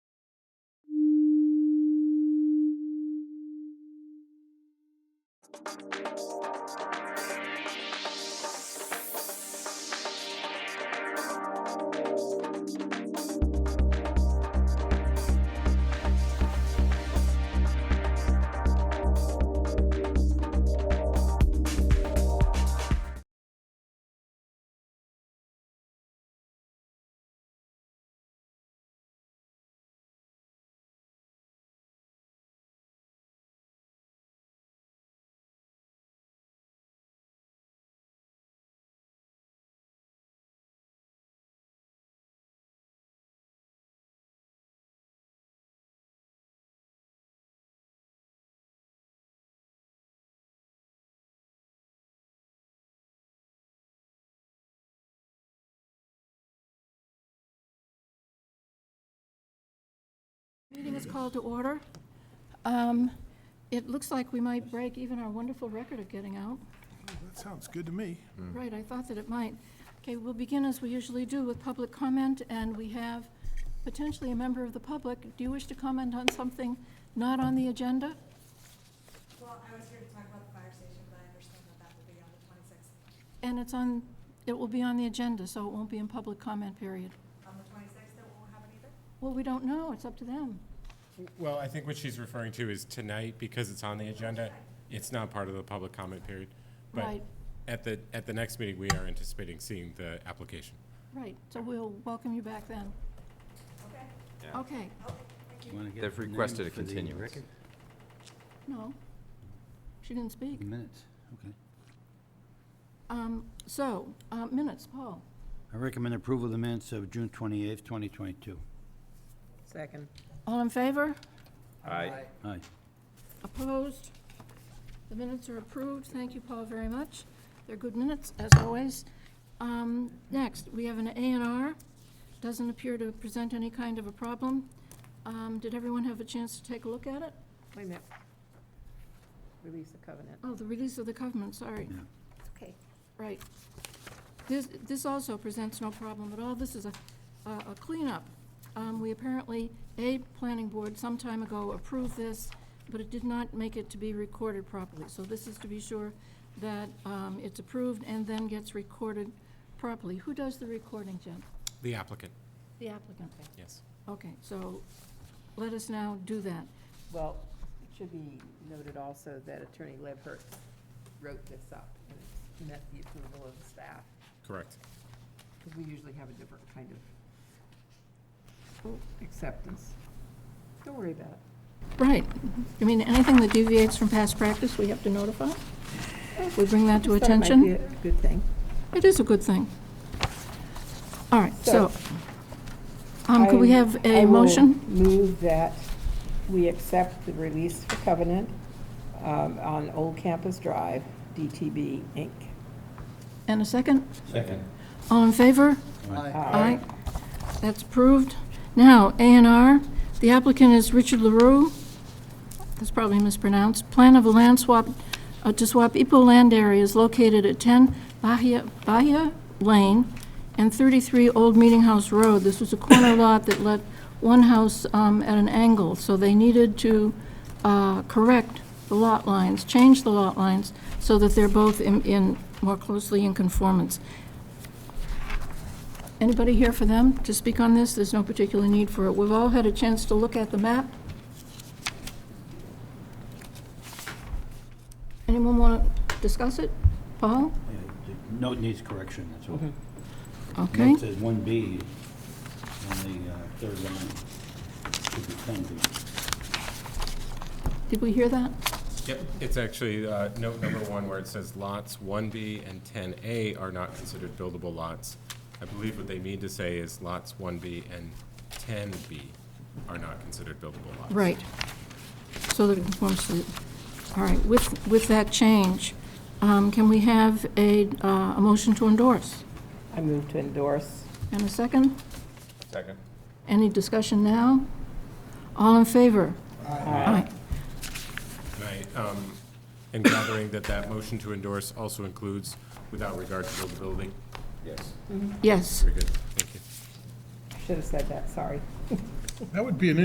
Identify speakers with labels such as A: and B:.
A: Meeting is called to order. Um, It looks like we might break even our wonderful record of getting out.
B: That sounds good to me.
A: Right, I thought that it might. Okay, we'll begin as we usually do with public comment, and we have potentially a member of the public. Do you wish to comment on something not on the agenda?
C: Well, I was here to talk about the fire station, but I understand that that will be on the twenty-sixth.
A: And it's on, it will be on the agenda, so it won't be in public comment period.
C: On the twenty-sixth, it won't happen either?
A: Well, we don't know, it's up to them.
D: Well, I think what she's referring to is tonight, because it's on the agenda, it's not part of the public comment period. But
A: Right.
D: at the, at the next meeting, we are anticipating seeing the application.
A: Right, so we'll welcome you back then.
C: Okay,
A: Okay,
C: okay, thank you.
E: Wanna get
F: They've
E: the name
F: requested a
E: for the
F: continuance.
E: record?
A: no. She didn't speak.
E: Minutes, okay.
A: Um, So, uh, minutes, Paul.
E: I recommend approval of the minutes of June 28th, 2022.
G: Second.
A: All in favor?
F: Aye.
E: Aye.
A: Opposed? The minutes are approved. Thank you, Paul, very much. They're good minutes, as always. Um, Next, we have an A and R. Doesn't appear to present any kind of a problem. Um, Did everyone have a chance to take a look at it?
G: Wait a minute. Release the covenant.
A: Oh, the release of the covenant, sorry.
E: Yeah.
G: Okay.
A: Right. This, this also presents no problem at all. This is a, a a cleanup. Um, we apparently, a planning board some time ago approved this, but it did not make it to be recorded properly. So this is to be sure that, um, it's approved and then gets recorded properly. Who does the recording, Jim?
D: The applicant,
A: The applicant.
D: yes.
A: Okay, so let us now do that.
G: Well, it should be noted also that Attorney Lebhert wrote this up and it's met the approval of the staff,
D: Correct.
G: because we usually have a different kind of acceptance. Don't worry about it.
A: Right. I mean, anything that deviates from past practice, we have to notify? We bring that to
G: Thought it might
A: attention?
G: be a Good thing.
A: It is a good thing. All right, so,
G: So,
A: um, could we
G: I-
A: have
G: I
A: a
G: will
A: motion?
G: Move that we accept the release for covenant um, on Old Campus Drive, DTB Inc.
A: And a second? Second. All in favor? Aye. That's approved. Now, A and R. The applicant is Richard LaRue. That's probably mispronounced. Plan of a land swap, uh, to swap Ipo land areas located at 10 Bahia, Bahia Lane and 33 Old Meeting House Road. This was a corner lot that let one house um, at an angle, so they needed to uh, correct the lot lines, change the lot lines, so that they're both in- in, more closely in conformance. Anybody here for them to speak on this? There's no particular need for it. We've all had a chance to look at the map. Anyone want to discuss it? Paul?
E: Yeah, the Note needs correction, that's all.
A: Okay.
E: Note says 1B on the uh, third line. Should be 10B.
A: Did we hear that?
D: Yep, it's actually uh, note number one where it says lots 1B and 10A are not considered buildable lots. I believe what they mean to say is lots 1B and 10B are not considered buildable lots.
A: Right. So that it conforms to, all right, with, with that change, um, can we have a, uh, a motion to endorse?
G: I move to endorse.
A: And a second?
D: Second.
A: Any discussion now? All in favor? Aye.
D: Right, um, and gathering that that motion to endorse also includes without regard to buildability.
F: Yes.
A: Yes.
D: Very good, thank you.
G: Should have said that, sorry.
B: That would be an